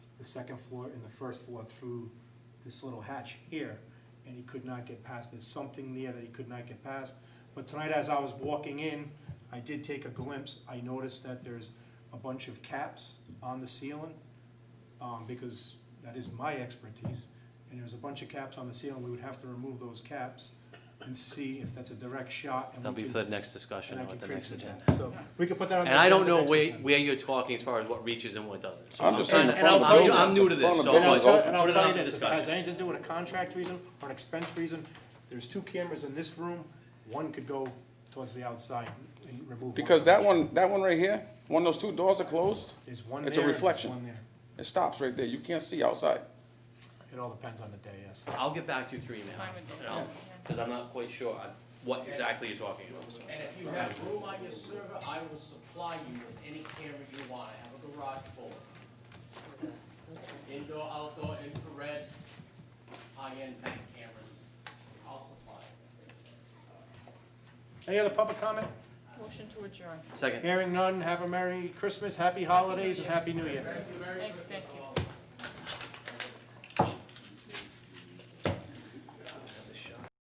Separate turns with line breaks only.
the second floor and the first floor through this little hatch here, and he could not get past. There's something there that he could not get past. But tonight, as I was walking in, I did take a glimpse. I noticed that there's a bunch of caps on the ceiling, um, because that is my expertise. And there's a bunch of caps on the ceiling. We would have to remove those caps and see if that's a direct shot. and
That'll
we
be
could-
for the next discussion
and I
on
could
the
create
next
some
agenda.
caps. So we could put that on.
And
the-
I
on
don't
the
know
next
where,
agenda.
where you're talking as far as what reaches and what doesn't. So
I'm just saying
kinda-
the front
And I'll tell
of
you,
the
I'm new to
building,
this,
the
so
front
And I'll
of
let's
the
tell,
building.
put
and I'll
it
tell
on
you
for
this, if it has
discussion.
anything to do with a contract reason or an expense reason, there's two cameras in this room, one could go towards the outside and remove. one.
Because that one, that one right here, when those two doors are closed,
There's one there.
it's a
and there's
reflection.
One there.
it stops right there. You can't see outside.
It all depends on the day, yes.
I'll get back to you through email, and I'll, because I'm not quite sure on what exactly you're talking about. so.
And if you have room on your server, I will supply you with any camera you want, I have a garage full. of them. Indoor, outdoor, infrared, high-end bank cameras, I'll supply it.
Any other public comment?
Motion to adjourn.
Second.
Hearing none, have a Merry Christmas, Happy Holidays, and Happy New Year.
Thank you very
Thank
much.
thank you.